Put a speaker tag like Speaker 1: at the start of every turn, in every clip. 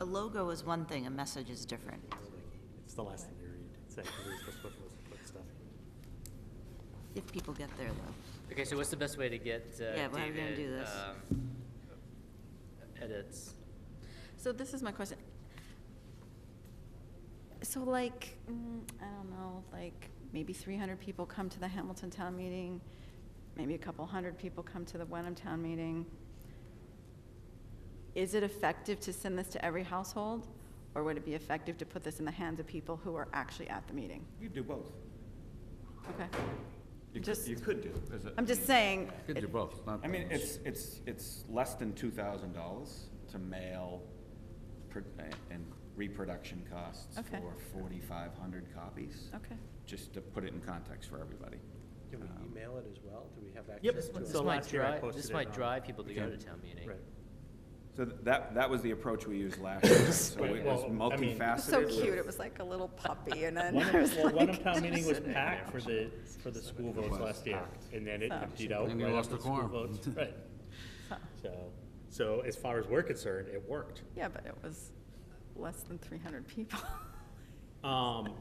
Speaker 1: logo is one thing, a message is different.
Speaker 2: It's the last thing you read. It's like, we're supposed to put- put stuff.
Speaker 1: If people get there, though.
Speaker 3: Okay, so what's the best way to get uh,
Speaker 1: Yeah, we're gonna
Speaker 3: David,
Speaker 1: do this.
Speaker 3: um, edits?
Speaker 4: So this is my question. So like, mm, I don't know, like maybe 300 people come to the Hamilton Town Meeting, maybe a couple hundred people come to the Wenham Town Meeting. Is it effective to send this to every household? Or would it be effective to put this in the hands of people who are actually at the meeting?
Speaker 5: You could do both.
Speaker 4: Okay.
Speaker 5: You could,
Speaker 4: Just-
Speaker 5: you could uh, do. as a-
Speaker 4: I'm just saying,
Speaker 6: Could do both, it's not.
Speaker 5: I mean, it's, it's, it's less than two thousand dollars to mail pro- and reproduction costs
Speaker 4: Okay.
Speaker 5: for forty-five hundred copies.
Speaker 4: okay.
Speaker 5: Just to put it in context for everybody.
Speaker 7: Do we
Speaker 5: Um,
Speaker 7: email it as well? Do we have access
Speaker 2: Yep.
Speaker 7: to it?
Speaker 2: So
Speaker 3: This might
Speaker 2: last year I
Speaker 3: drive,
Speaker 2: posted
Speaker 3: this
Speaker 2: it
Speaker 3: might
Speaker 2: on-
Speaker 3: drive people to go to
Speaker 5: Okay.
Speaker 3: town meeting.
Speaker 2: Right.
Speaker 5: So th- that, that was the approach we used last year, so
Speaker 8: Right,
Speaker 5: it was
Speaker 8: well, I mean-
Speaker 5: multifaceted.
Speaker 4: It was so
Speaker 5: with-
Speaker 4: cute, it was like a little puppy, and then I
Speaker 8: One,
Speaker 4: was
Speaker 8: well, one
Speaker 4: like,
Speaker 8: of town meeting was packed for the, for the school votes last year, and then it
Speaker 4: Oh.
Speaker 8: emptied out.
Speaker 6: Then we
Speaker 8: right
Speaker 6: lost
Speaker 8: after
Speaker 6: the quorum.
Speaker 8: school votes. Right. So, so as far as we're concerned, it worked.
Speaker 4: yeah, but it was less than 300 people.
Speaker 8: Um,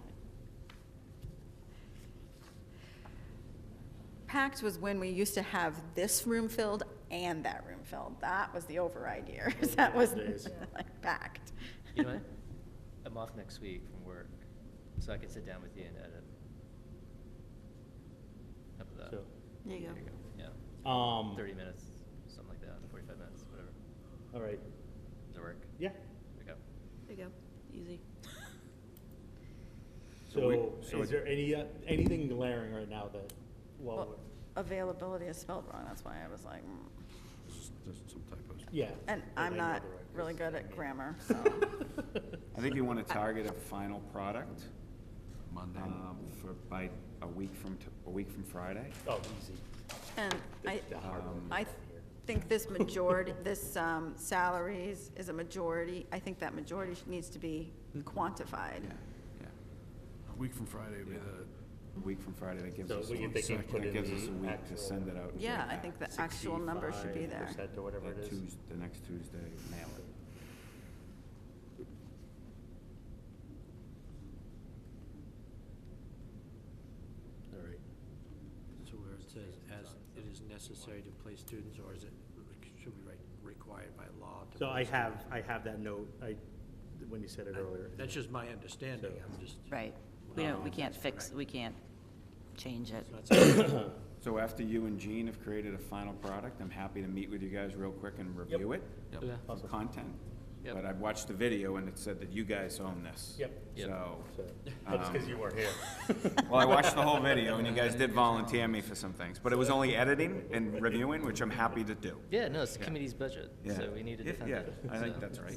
Speaker 4: Packed was when we used to have this room filled and that room filled. That was the override years. That was
Speaker 8: days.
Speaker 4: like packed.
Speaker 3: You know what? I'm off next week from work, so I can sit down with you and edit. How about that?
Speaker 8: so,
Speaker 1: There you go.
Speaker 3: Yeah,
Speaker 8: um,
Speaker 3: thirty minutes, something like that, forty-five minutes, whatever.
Speaker 8: all right,
Speaker 3: Does it work?
Speaker 8: yeah.
Speaker 3: Okay.
Speaker 1: There you go, easy.
Speaker 5: So we-
Speaker 8: So,
Speaker 5: so
Speaker 8: is
Speaker 5: it-
Speaker 8: there any, uh, anything glaring right now that, well,
Speaker 4: Well, Availability is spelled wrong, that's why I was like, mm.
Speaker 6: Just- Just some typos.
Speaker 8: yeah.
Speaker 4: and
Speaker 8: that
Speaker 4: I'm
Speaker 8: they know
Speaker 4: not
Speaker 8: the right
Speaker 4: really
Speaker 8: words,
Speaker 4: good
Speaker 8: I
Speaker 4: at
Speaker 8: mean.
Speaker 4: grammar, so.
Speaker 5: I think you want to target a final product
Speaker 6: Monday.
Speaker 5: um, for, by a week from, t- a week from Friday.
Speaker 8: Oh, easy.
Speaker 4: And I,
Speaker 8: The hard one.
Speaker 4: I think this majority, this um, salaries is a majority. I think that majority sh- needs to be quantified.
Speaker 5: Yeah, yeah,
Speaker 6: A week from Friday would be the,
Speaker 5: a week from Friday, that gives
Speaker 8: So
Speaker 5: us,
Speaker 8: we can- they
Speaker 5: a-
Speaker 8: can put
Speaker 5: that
Speaker 8: in
Speaker 5: gives
Speaker 8: the
Speaker 5: us a week to
Speaker 8: actual-
Speaker 5: send it out. and
Speaker 4: Yeah,
Speaker 5: get
Speaker 4: I
Speaker 5: back.
Speaker 4: think the actual number should be there.
Speaker 8: 65% Or whatever
Speaker 5: That
Speaker 8: it is.
Speaker 5: Tues- The next Tuesday, mail it.
Speaker 8: All right.
Speaker 9: So where it says, as it is necessary to place students, or is it, should we write required by law? to
Speaker 8: So I
Speaker 9: place
Speaker 8: have, I have that note, I, when you said it
Speaker 9: them?
Speaker 8: earlier.
Speaker 9: That's just my understanding, I'm just.
Speaker 1: Right, we don't, we
Speaker 2: Um,
Speaker 1: can't fix, we can't change it.
Speaker 9: That's all.
Speaker 5: So after you and Gene have created a final product, I'm happy to meet with you guys real quick and review it.
Speaker 6: yep.
Speaker 5: Some content.
Speaker 3: Yep.
Speaker 5: But I watched the video and it said that you guys own this.
Speaker 8: Yep.
Speaker 3: Yep.
Speaker 5: So,
Speaker 8: So, That's because you weren't here.
Speaker 5: Oh. Um, well, I watched the whole video and you guys did volunteer me for some things, but it was only editing and reviewing, which I'm happy to do.
Speaker 3: Yeah, no, it's the committee's budget,
Speaker 5: Yeah.
Speaker 3: so we need to
Speaker 5: Yeah,
Speaker 3: defend
Speaker 5: yeah,
Speaker 3: it.
Speaker 5: I think
Speaker 3: so.
Speaker 5: that's right.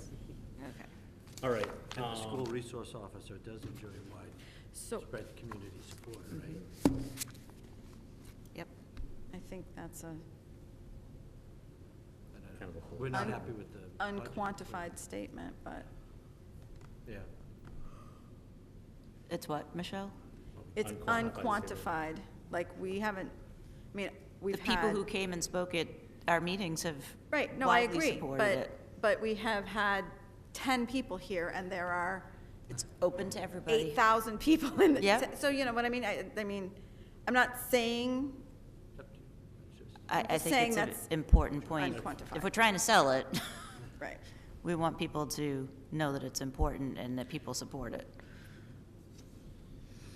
Speaker 1: Okay.
Speaker 8: All right.
Speaker 9: And the
Speaker 8: um,
Speaker 9: school resource officer does enjoy wide
Speaker 4: So Mm-hmm.
Speaker 9: spread community support, right?
Speaker 1: Yep,
Speaker 4: I think that's a
Speaker 9: But I don't-
Speaker 8: Kind of a whole-
Speaker 9: We're not
Speaker 4: Un-
Speaker 9: happy with the. budget.
Speaker 4: unquantified statement, but
Speaker 9: Yeah.
Speaker 1: it's what, Michelle?
Speaker 4: it's
Speaker 8: Unquantified
Speaker 4: unquantified.
Speaker 8: statement.
Speaker 4: Like, we haven't, I mean, we've
Speaker 1: The people
Speaker 4: had.
Speaker 1: who came and spoke at our meetings have
Speaker 4: Right, no, I
Speaker 1: widely
Speaker 4: agree,
Speaker 1: supported
Speaker 4: but,
Speaker 1: it.
Speaker 4: but we have had 10 people here, and there are
Speaker 1: It's open to everybody.
Speaker 4: 8,000 people in the.
Speaker 1: Yeah.
Speaker 4: So, you know what I mean? I, I mean, I'm not saying
Speaker 9: It's up to you. It's just-
Speaker 1: I, I
Speaker 4: just
Speaker 1: think it's
Speaker 4: saying
Speaker 1: an
Speaker 4: that's
Speaker 1: important point.
Speaker 4: unquantified.
Speaker 1: If we're trying to sell it,
Speaker 4: Right.
Speaker 1: we want people to know that it's important and that people support it.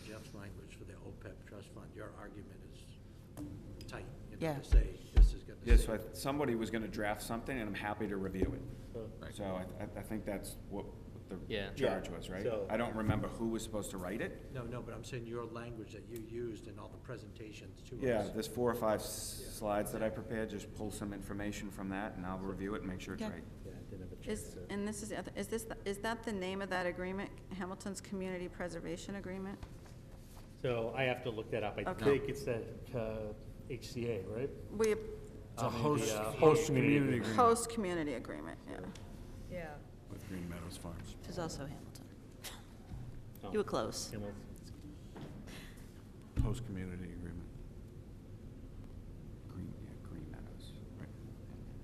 Speaker 9: Jeff's language for the OPEB trust fund, your argument is tight. You know,
Speaker 1: Yeah.
Speaker 9: to say this is gonna.
Speaker 5: Yeah,
Speaker 9: save
Speaker 5: so I, somebody was gonna draft something and I'm happy to review it.
Speaker 6: Right.
Speaker 5: So I, I- I think that's what the
Speaker 3: Yeah.
Speaker 5: charge
Speaker 8: Yeah,
Speaker 5: was, right?
Speaker 8: so-
Speaker 5: I don't remember who was supposed to write it.
Speaker 9: No, no, but I'm saying your language that you used in all the presentations to us.
Speaker 5: Yeah, there's four or five s- slides that I prepared, just pull some information from that and I'll review it and make sure it's
Speaker 1: Yeah.
Speaker 5: right.
Speaker 8: Yeah, I didn't have a chance
Speaker 4: Is,
Speaker 8: to-
Speaker 4: and this is, the other- is this, the- is that the name of that agreement, Hamilton's Community Preservation Agreement?
Speaker 8: So I have to look that up. I
Speaker 4: Okay.
Speaker 8: think it's that uh, HCA, right? Um, uh,
Speaker 4: We,
Speaker 8: A
Speaker 6: host-
Speaker 8: host community. agreement.
Speaker 4: host community agreement, yeah.
Speaker 10: Yeah.
Speaker 6: With Green Meadows Farms.
Speaker 1: Which is also Hamilton.
Speaker 8: Oh.
Speaker 2: Oh.
Speaker 1: You were close.
Speaker 8: Hamilton.
Speaker 6: Host community agreement.